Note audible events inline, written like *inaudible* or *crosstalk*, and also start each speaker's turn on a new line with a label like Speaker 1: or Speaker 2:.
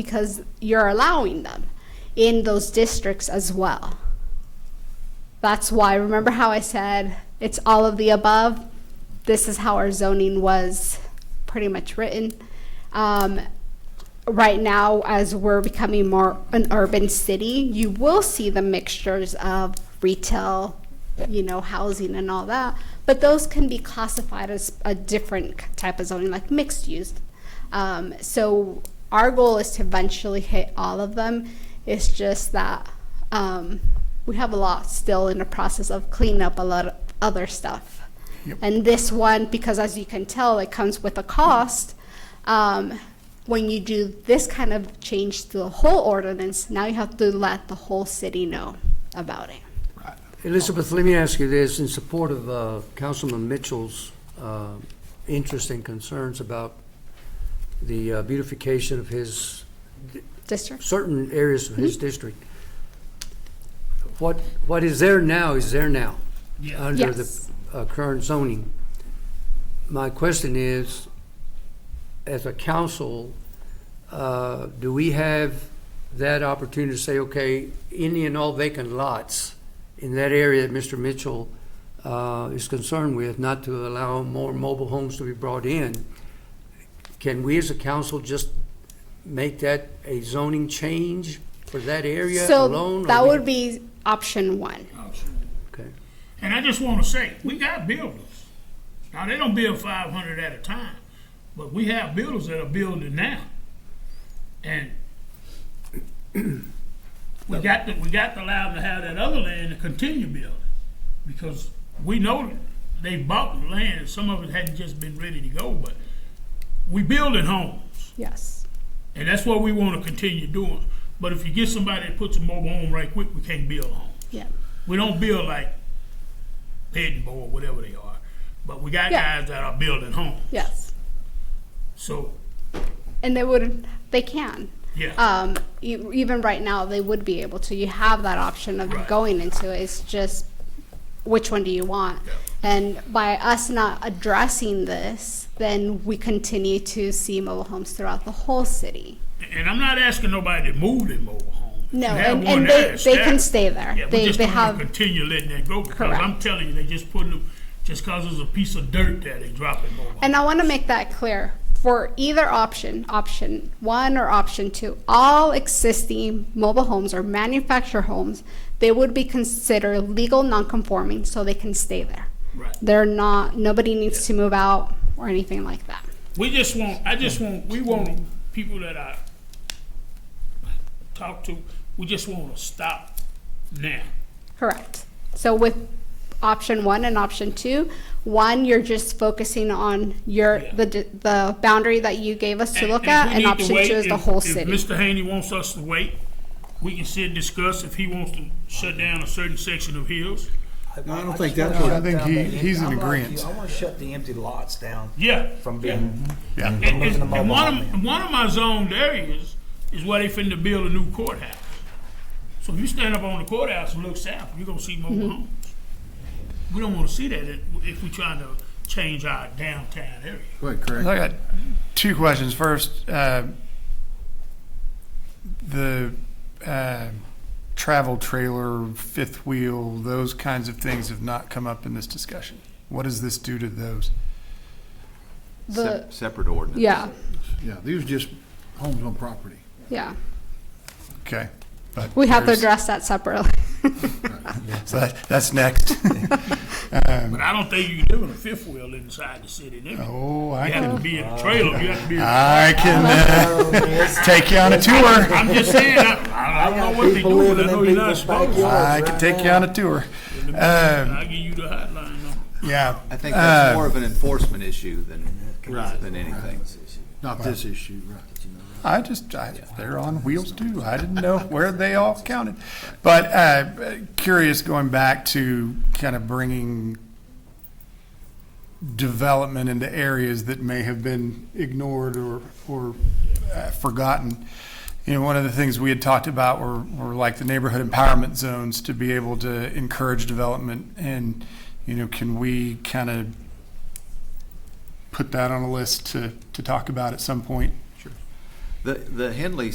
Speaker 1: because you're allowing them in those districts as well. That's why, remember how I said it's all of the above? This is how our zoning was pretty much written. Um, right now, as we're becoming more an urban city, you will see the mixtures of retail, you know, housing and all that. But those can be classified as a different type of zoning, like mixed use. Um, so our goal is to eventually hit all of them. It's just that um, we have a lot still in the process of cleaning up a lot of other stuff.
Speaker 2: Yep.
Speaker 1: And this one, because as you can tell, it comes with a cost. Um, when you do this kind of change to the whole ordinance, now you have to let the whole city know about it.
Speaker 3: Elizabeth, let me ask you this, in support of uh, Councilman Mitchell's uh, interest and concerns about the uh, beautification of his,
Speaker 1: District?
Speaker 3: certain areas of
Speaker 1: Mm-hmm.
Speaker 3: his district, what, what is there now is there now, under the
Speaker 1: Yes.
Speaker 3: uh, current zoning. My question is, as a council, uh, do we have that opportunity to say, okay, any and all vacant lots in that area that Mr. Mitchell uh, is concerned with, not to allow more mobile homes to be brought in, can we as a council just make that a zoning change for that area
Speaker 1: So
Speaker 3: alone? or
Speaker 1: that
Speaker 3: we-
Speaker 1: would be option one.
Speaker 3: Okay,
Speaker 2: And I just want to say, we got builders. Now, they don't build 500 at a time, but we have builders that are building now. And *clears throat* we got to, we got to allow them to have that other land to continue building because we know they bought the land. Some of it hadn't just been ready to go, but we building homes.
Speaker 1: Yes.
Speaker 2: And that's what we want to continue doing. But if you get somebody that puts a mobile home right quick, we can't build a home.
Speaker 1: Yeah.
Speaker 2: We don't build like Pittenbow or whatever they are. But we got
Speaker 1: Yeah.
Speaker 2: guys that are building homes.
Speaker 1: Yes.
Speaker 2: So,
Speaker 1: And they would, they can.
Speaker 2: yeah.
Speaker 1: um, e- even right now, they would be able to. You have that option of
Speaker 2: Right.
Speaker 1: going into it. It's just which one do you want?
Speaker 2: Yeah.
Speaker 1: And by us not addressing this, then we continue to see mobile homes throughout the whole city.
Speaker 2: and I'm not asking nobody to move their mobile home. If
Speaker 1: No,
Speaker 2: you have
Speaker 1: and,
Speaker 2: one
Speaker 1: and
Speaker 2: there
Speaker 1: they,
Speaker 2: that's
Speaker 1: they can
Speaker 2: established,
Speaker 1: stay there.
Speaker 2: Yeah, we
Speaker 1: they
Speaker 2: just
Speaker 1: they
Speaker 2: don't wanna
Speaker 1: have
Speaker 2: continue letting that go because I'm
Speaker 1: Correct.
Speaker 2: telling you, they just putting them, just because there's a piece of dirt there, they dropping mobile homes.
Speaker 1: And I want to make that clear. For either option, option one or option two, all existing mobile homes or manufactured homes, they would be considered legal nonconforming, so they can stay there.
Speaker 2: Right.
Speaker 1: They're not, nobody needs to move out or anything like that.
Speaker 2: We just want, I just want, we want people that I talk to, we just want to stop now.
Speaker 1: Correct. So with option one and option two, one, you're just focusing on your,
Speaker 2: Yeah.
Speaker 1: the, d- the boundary that you gave us to look at,
Speaker 2: we
Speaker 1: and
Speaker 2: need to
Speaker 1: option two
Speaker 2: wait,
Speaker 1: is the
Speaker 2: if-
Speaker 1: whole
Speaker 2: If
Speaker 1: city.
Speaker 2: Mr. Haney wants us to wait, we can sit and discuss if he wants to shut down a certain section of hills.
Speaker 4: No, I don't
Speaker 5: just
Speaker 4: think that's
Speaker 5: wanna
Speaker 4: what-
Speaker 5: shut
Speaker 4: I
Speaker 2: think
Speaker 5: down
Speaker 2: he-
Speaker 5: the empty-
Speaker 2: he's in
Speaker 5: I'm like
Speaker 2: agreeant.
Speaker 5: you. I want to shut the empty lots down
Speaker 2: Yeah.
Speaker 5: from being.
Speaker 2: And,
Speaker 5: from
Speaker 2: and-
Speaker 5: moving the
Speaker 2: and
Speaker 5: mobile
Speaker 2: one
Speaker 5: home in.
Speaker 2: of, one of my zoned areas is where they finna build a new courthouse. So if you stand up on the courthouse and look south, you're gonna see
Speaker 1: Mm-hmm.
Speaker 2: mobile homes. We don't wanna see that if if we trying to change our downtown area.
Speaker 6: I got two questions. First, uh, the uh, travel trailer, fifth wheel, those kinds of things have not come up in this discussion. What does this do to those?
Speaker 1: The,
Speaker 7: Separate ordinance.
Speaker 1: yeah,
Speaker 8: Yeah, these are just homes on property.
Speaker 1: yeah.
Speaker 6: Okay. but
Speaker 1: We have to
Speaker 6: there's-
Speaker 1: address that separately.
Speaker 6: So that, that's next.
Speaker 2: But I don't think you can do a fifth wheel inside the city limits.
Speaker 6: *laughs* oh, I
Speaker 2: You have
Speaker 6: can,
Speaker 2: to be in a trailer, you have to be, in-
Speaker 6: *laughs* I can
Speaker 2: *laughs*
Speaker 5: Um,
Speaker 6: uh, take you on a tour.
Speaker 2: I'm just saying, I, I don't know what they
Speaker 5: people
Speaker 2: do,
Speaker 5: living
Speaker 2: I know
Speaker 5: in
Speaker 2: you're not
Speaker 5: people's
Speaker 2: supposed to.
Speaker 5: backyards
Speaker 6: I
Speaker 5: right
Speaker 6: can take you
Speaker 5: now.
Speaker 6: on a tour. Um,
Speaker 2: I'll give you the hotline number.
Speaker 6: yeah.
Speaker 7: I think that's
Speaker 6: uh,
Speaker 7: more of an enforcement issue than, than anything.
Speaker 8: Not this issue, right.
Speaker 6: I just, I, they're on wheels too. I didn't know where they all counted. But uh, curious, going back to kind of bringing development into areas that may have been ignored or, or uh, forgotten. You know, one of the things we had talked about were, were like the neighborhood empowerment zones to be able to encourage development. And, you know, can we kind of put that on a list to, to talk about at some point?
Speaker 7: The, the Henley